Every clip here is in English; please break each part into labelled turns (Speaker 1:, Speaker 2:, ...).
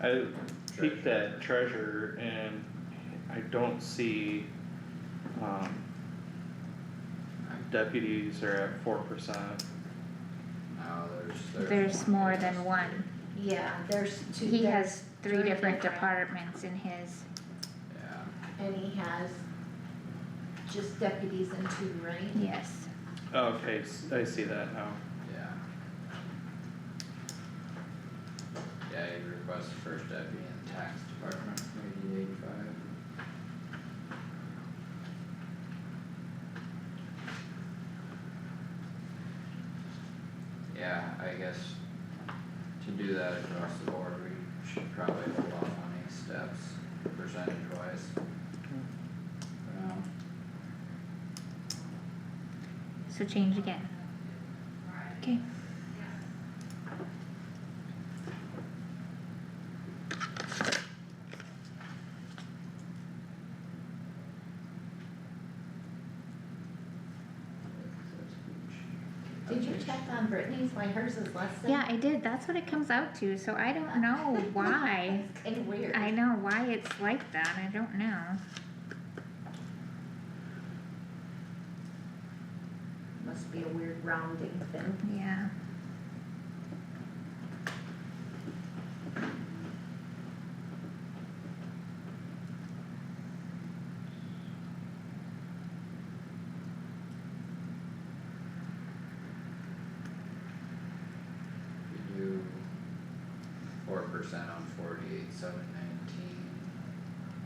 Speaker 1: I peeked at treasure and I don't see, um. Deputies are at four percent,
Speaker 2: No, there's, there's.
Speaker 3: There's more than one.
Speaker 4: Yeah, there's two.
Speaker 3: He
Speaker 4: there-
Speaker 3: has three
Speaker 4: three
Speaker 3: different
Speaker 4: different-
Speaker 3: departments in his,
Speaker 2: Yeah,
Speaker 4: And he has just deputies and two, right?
Speaker 3: yes.
Speaker 1: Oh, okay, s- I see that now,
Speaker 2: yeah. Yeah, you request first deputy in the tax department, maybe eighty-five. Yeah, I guess to do that across the board, we should probably hold off on these steps percentage wise.
Speaker 3: So change again. Okay.
Speaker 4: Did you check on Brittany's, why hers is less than?
Speaker 3: Yeah, I did. That's what it comes out to, so I don't know why.
Speaker 4: It's Kinda weird.
Speaker 3: I know why it's like that. I don't know.
Speaker 4: Must be a weird rounding thing.
Speaker 3: Yeah.
Speaker 2: We do four percent on forty-eight, seven nineteen.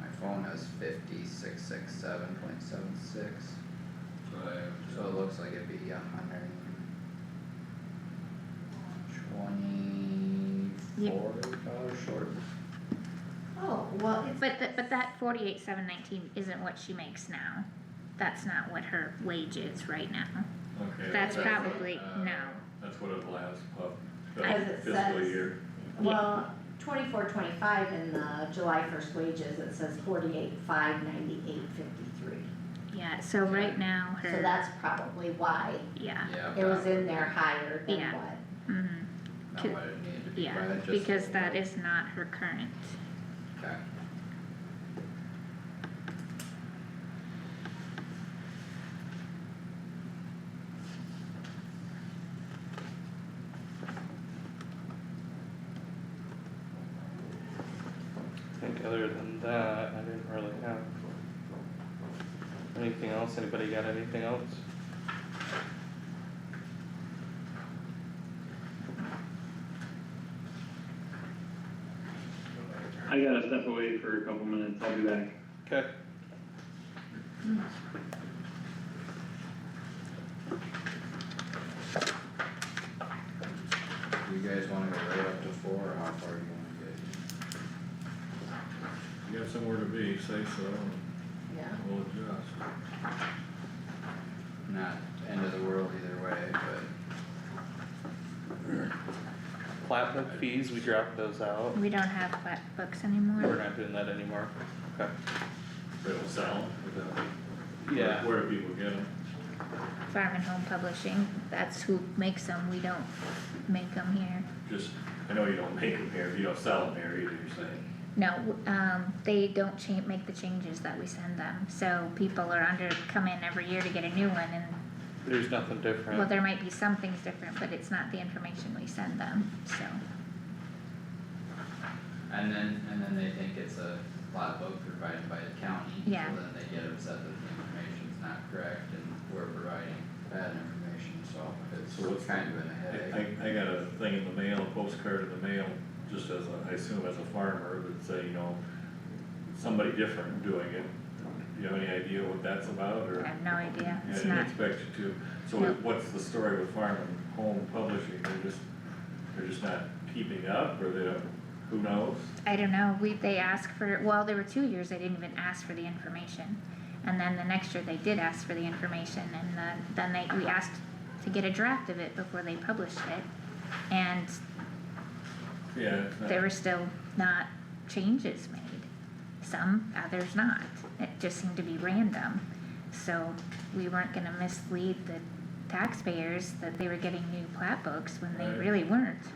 Speaker 2: My phone has fifty-six, six, seven point seven six, so it looks like it'd be a hundred and twenty-four dollars short.
Speaker 4: Oh, well, it's.
Speaker 3: But th- but that forty-eight seven nineteen isn't what she makes now. That's not what her wage is right now.
Speaker 5: Okay.
Speaker 3: That's
Speaker 4: that's-
Speaker 3: probably
Speaker 2: uh,
Speaker 3: no.
Speaker 5: That's what it allows, of
Speaker 4: As it
Speaker 5: fiscal
Speaker 4: says.
Speaker 5: year.
Speaker 4: Well, twenty-four, twenty-five in the July first wages, it says forty-eight, five, ninety-eight, fifty-three.
Speaker 3: Yeah. So right now her.
Speaker 4: So that's probably why
Speaker 3: yeah.
Speaker 2: Yeah.
Speaker 4: it was in there higher than
Speaker 3: Yeah.
Speaker 4: what.
Speaker 3: hmm
Speaker 2: Not what it needed to be, but
Speaker 3: Yeah,
Speaker 2: it just.
Speaker 3: because that is not her current.
Speaker 2: Okay.
Speaker 1: I think other than that, I didn't really have. Anything else, anybody got anything else?
Speaker 6: I gotta step away for a couple minutes, I'll be back.
Speaker 1: Okay.
Speaker 2: Do you guys wanna go right up to four, or how far do you wanna get?
Speaker 5: You got somewhere to be, say so,
Speaker 4: Yeah.
Speaker 5: and we'll adjust.
Speaker 2: Not end of the world either way, but.
Speaker 1: Platinum fees, we dropped those out,
Speaker 3: We don't have flat books
Speaker 1: we're
Speaker 3: anymore.
Speaker 1: not doing that anymore, okay,
Speaker 5: It'll sell without.
Speaker 1: yeah,
Speaker 5: Where do people get them?
Speaker 3: Farm and Home Publishing, that's who makes them. We don't make them here.
Speaker 5: Just, I know you don't make them here, you don't sell them here either, you're saying.
Speaker 3: No, um, they don't change, make the changes that we send them. So people are under, come in every year to get a new one and,
Speaker 1: there's nothing different.
Speaker 3: well, there might be some things different, but it's not the information we send them, so.
Speaker 2: And then, and then they think it's a plot book provided by the county, so
Speaker 3: Yeah.
Speaker 2: then they get upset that the information's not correct and we're providing bad information,
Speaker 5: So
Speaker 2: so
Speaker 5: what's
Speaker 2: it's
Speaker 5: the-
Speaker 2: kind of a
Speaker 5: I,
Speaker 2: headache.
Speaker 5: I, I got a thing in the mail, a postcard in the mail, just as a, I assume as a farmer, would say, you know, somebody different doing it. Do you have any idea what that's about, or?
Speaker 3: I have no idea.
Speaker 5: Yeah, I
Speaker 3: It's
Speaker 5: didn't
Speaker 3: not,
Speaker 5: expect you to, so
Speaker 3: No.
Speaker 5: what's the story with Farm and Home Publishing, they're just, they're just not keeping up, or they don't, who knows?
Speaker 3: I don't know, we, they asked for, well, there were two years they didn't even ask for the information. And then the next year they did ask for the information and the, then they, we asked to get a draft of it before they published it. And
Speaker 5: Yeah, it's not,
Speaker 3: there were still not changes made. Some, others not. It just seemed to be random. So we weren't gonna mislead the taxpayers that they were getting new plat books when they
Speaker 5: Right.
Speaker 3: really weren't.